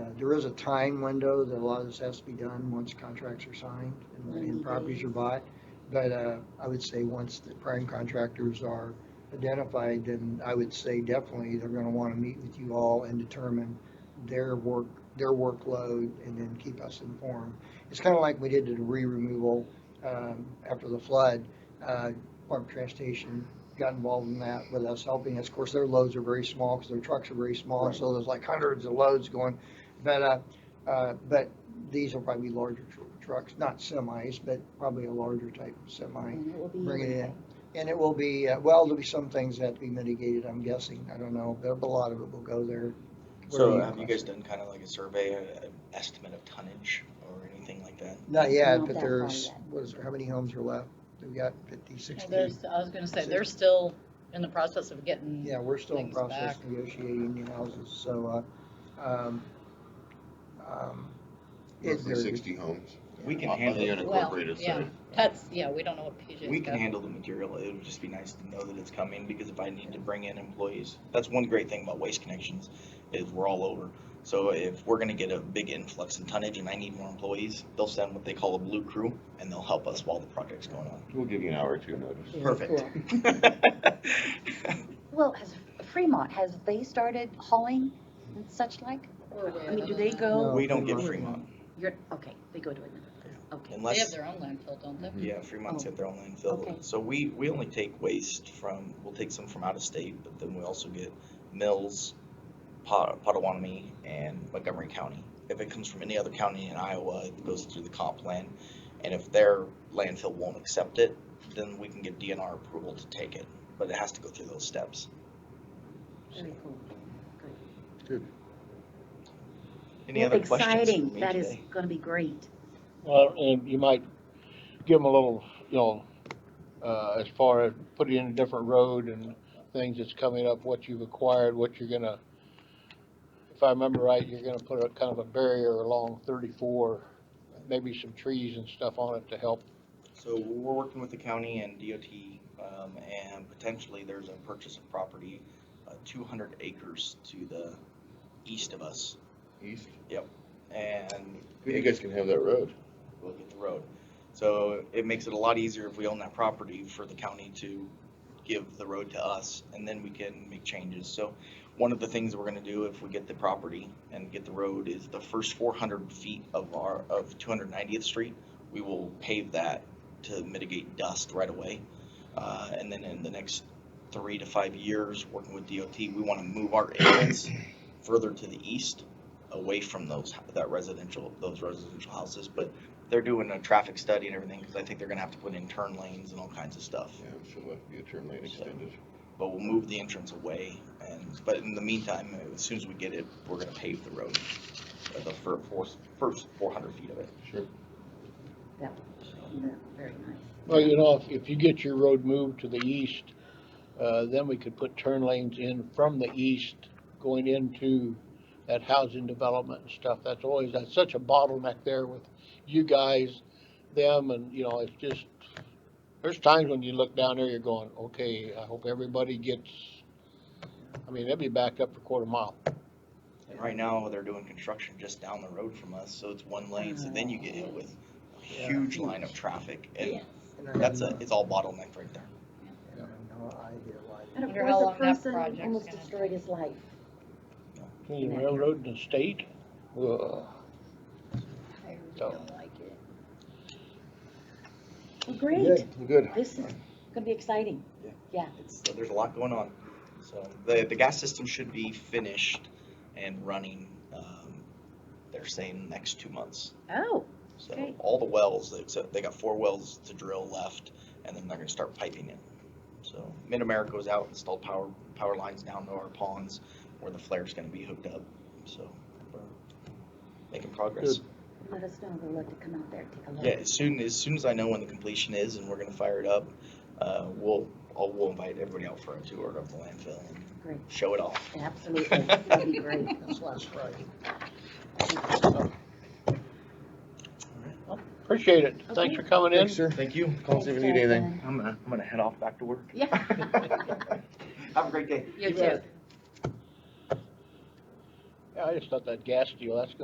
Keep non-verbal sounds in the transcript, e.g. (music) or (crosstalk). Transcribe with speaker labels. Speaker 1: there is a time window that a lot of this has to be done once contracts are signed and- and properties are bought. But, uh, I would say once the prime contractors are identified, then I would say definitely they're gonna wanna meet with you all and determine their work, their workload and then keep us informed. It's kinda like we did to the re-removal, um, after the flood. Uh, Department of Transportation got involved in that with us helping us. Of course, their loads are very small because their trucks are very small, so there's like hundreds of loads going. But, uh, uh, but these will probably be larger tr- trucks, not semis, but probably a larger type of semi.
Speaker 2: And Mm-hmm. it will be.
Speaker 1: Bring it in. And it will be, uh, well, there'll be some things that have to be mitigated, I'm guessing. I don't know, but a lot of it will go there.
Speaker 3: So
Speaker 1: Where
Speaker 3: have you guys
Speaker 1: classify-
Speaker 3: done kind of like a survey, uh, estimate of tonnage or anything like that?
Speaker 1: Not yet,
Speaker 2: Not
Speaker 1: but
Speaker 2: that far
Speaker 1: there's,
Speaker 2: yet.
Speaker 1: what is, there? how many homes are left? We've got fifty, sixty.
Speaker 4: There's, I was gonna say, they're still in the process of getting.
Speaker 1: Yeah, we're still in
Speaker 4: things
Speaker 1: process
Speaker 4: back.
Speaker 1: negotiating new houses, so, uh, um, um, it
Speaker 5: Roughly
Speaker 1: varies.
Speaker 5: sixty homes.
Speaker 3: We can
Speaker 5: On the
Speaker 3: handle it.
Speaker 4: Well,
Speaker 5: unincorporated
Speaker 4: yeah.
Speaker 5: side.
Speaker 4: That's, yeah, we don't know what PJ's got.
Speaker 3: We can handle the material. It would just be nice to know that it's coming because if I need to bring in employees, that's one great thing about Waste Connections is we're all over. So if we're gonna get a big influx in tonnage and I need more employees, they'll send what they call a blue crew and they'll help us while the project's going on.
Speaker 5: We'll give you an hour or two notice.
Speaker 3: Perfect. (laughs)
Speaker 2: Well, has Fremont, has they started hauling and such like?
Speaker 4: We're way
Speaker 2: I mean,
Speaker 4: out
Speaker 2: do
Speaker 4: on
Speaker 2: they
Speaker 4: that.
Speaker 2: go,
Speaker 1: No,
Speaker 3: We don't get
Speaker 1: Fremont.
Speaker 3: Fremont
Speaker 2: you're, okay, they go to another place, okay.
Speaker 4: They have
Speaker 3: unless,
Speaker 4: their own landfill, don't they?
Speaker 3: yeah, Fremont's
Speaker 2: Oh.
Speaker 3: got their own landfill.
Speaker 2: Okay.
Speaker 3: So we, we only take waste from, we'll take some from out of state, but then we also get Mills, Pot- Potawatomi, and Montgomery County. If it comes from any other county in Iowa, it goes through the comp plan. And if their landfill won't accept it, then we can get DNR approval to take it, but it has to go through those steps.
Speaker 2: Very cool. Great.
Speaker 3: Any
Speaker 2: Well,
Speaker 3: other questions for
Speaker 2: Exciting,
Speaker 3: me
Speaker 2: that is
Speaker 3: today?
Speaker 2: gonna be great.
Speaker 6: Well, and you might give them a little, you know, uh, as far as putting in a different road and things that's coming up, what you've acquired, what you're gonna, if I remember right, you're gonna put a kind of a barrier along thirty-four, maybe some trees and stuff on it to help.
Speaker 3: So we're working with the county and DOT, um, and potentially there's a purchase of property, uh, two hundred acres to the east of us.
Speaker 5: East.
Speaker 3: And
Speaker 5: You guys can have that road.
Speaker 3: look at the road. So it makes it a lot easier if we own that property for the county to give the road to us, and then we can make changes. So one of the things we're gonna do if we get the property and get the road is the first four hundred feet of our, of two hundred ninetieth street, we will pave that to mitigate dust right away. Uh, and then in the next three to five years, working with DOT, we wanna move our areas further to the east, away from those, that residential, those residential houses, but they're doing a traffic study and everything because I think they're gonna have to put in turn lanes and all kinds of stuff.
Speaker 5: Yeah, so it'll have to be a turn lane
Speaker 3: So-
Speaker 5: extended.
Speaker 3: But we'll move the entrance away and, but in the meantime, as soon as we get it, we're gonna pave the road. uh, The fir- first, first four hundred feet of it.
Speaker 5: Sure.
Speaker 2: Yeah, Very nice.
Speaker 6: Well, you know, if, if you get your road moved to the east, uh, then we could put turn lanes in from the east going into that housing development and stuff. That's always, that's such a bottleneck there with you guys, them, and, you know, it's just, there's times when you look down there, you're going, okay, I hope everybody gets, I mean, they'll be backed up for a quarter mile.
Speaker 3: And right now, they're doing construction just down the road from us, so it's one lane, so then you get hit with a huge line of traffic and
Speaker 4: Yes.
Speaker 1: And I have
Speaker 3: that's
Speaker 1: no-
Speaker 3: a, it's all bottleneck right there.
Speaker 1: and I have no idea why they-
Speaker 2: And of
Speaker 4: Wonder how
Speaker 2: course,
Speaker 4: long
Speaker 2: a
Speaker 4: that
Speaker 2: person
Speaker 4: project's
Speaker 2: almost
Speaker 4: gonna
Speaker 2: destroyed
Speaker 4: take.
Speaker 2: his life.
Speaker 6: Between the railroad and the state, whoa.
Speaker 4: I really
Speaker 6: So-
Speaker 4: don't like it.
Speaker 2: Well, great,
Speaker 5: Good.
Speaker 2: this is gonna be exciting.
Speaker 3: It's, there's a lot going on. So the, the gas system should be finished and running, um, they're saying next two months.
Speaker 2: Oh,
Speaker 3: So
Speaker 2: Great.
Speaker 3: all the wells, except they got four wells to drill left and then they're gonna start piping it. So Mid-America was out, installed power, power lines down to our ponds where the flare's gonna be hooked up. So we're making progress.
Speaker 2: let us know, we'll love to come out there, and take a look.
Speaker 3: Yeah, as soon, as soon as I know when the completion is and we're gonna fire it up, uh, we'll, I'll, we'll invite everybody out for a tour of the landfill and
Speaker 2: Great,
Speaker 3: show it off.
Speaker 2: absolutely, that'd be great.
Speaker 3: (laughs)
Speaker 1: That's last Friday.
Speaker 4: (laughs)
Speaker 6: Appreciate it. Thanks for coming in.
Speaker 5: sir.
Speaker 3: Thank you.
Speaker 5: Call us if you need anything.
Speaker 3: I'm gonna, I'm gonna head off back to work.
Speaker 2: Yeah,
Speaker 3: Have a great day.
Speaker 2: you
Speaker 1: bet.
Speaker 2: too.
Speaker 6: Yeah, I just thought that gas deal, that's gonna